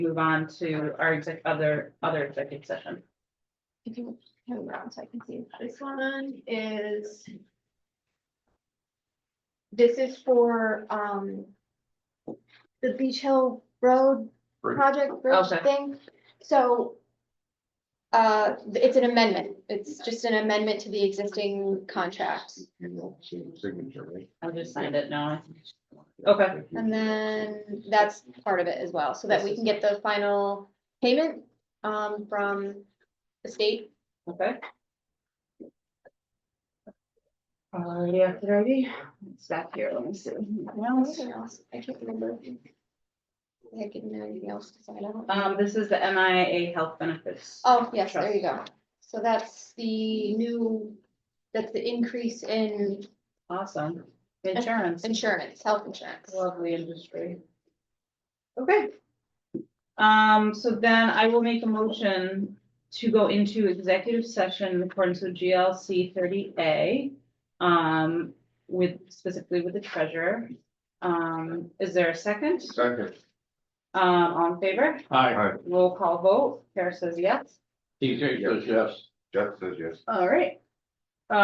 move on to our exec, other, other executive session. If you turn around so I can see. This one is. This is for, um. The Beach Hill Road Bridge. project bridge Okay. thing, so. Uh, it's an amendment, it's just an amendment to the existing contract, You know, same signature, right? I'll just sign it now. Okay. and then that's part of it as well, so that we can get the final payment. Um, from the state, Okay. Alrighty, after ready, it's back here, let me see. Anything else? anything else, I can't remember. I can know anything else, 'cause I don't. Um, this is the MIA health benefits. Oh, yes, there you go. So that's the new, that's the increase in Awesome. Insurance, insurance, health insurance. lovely industry. Okay. Um, so then I will make a motion to go into executive session in accordance with GLC thirty A. Um, with specifically with the treasurer. Um, is there a second? Second. Um, all in favor? Hi, Hi, Roll call vote. Kara says yes. TJ says yes. Jeff says yes. All right.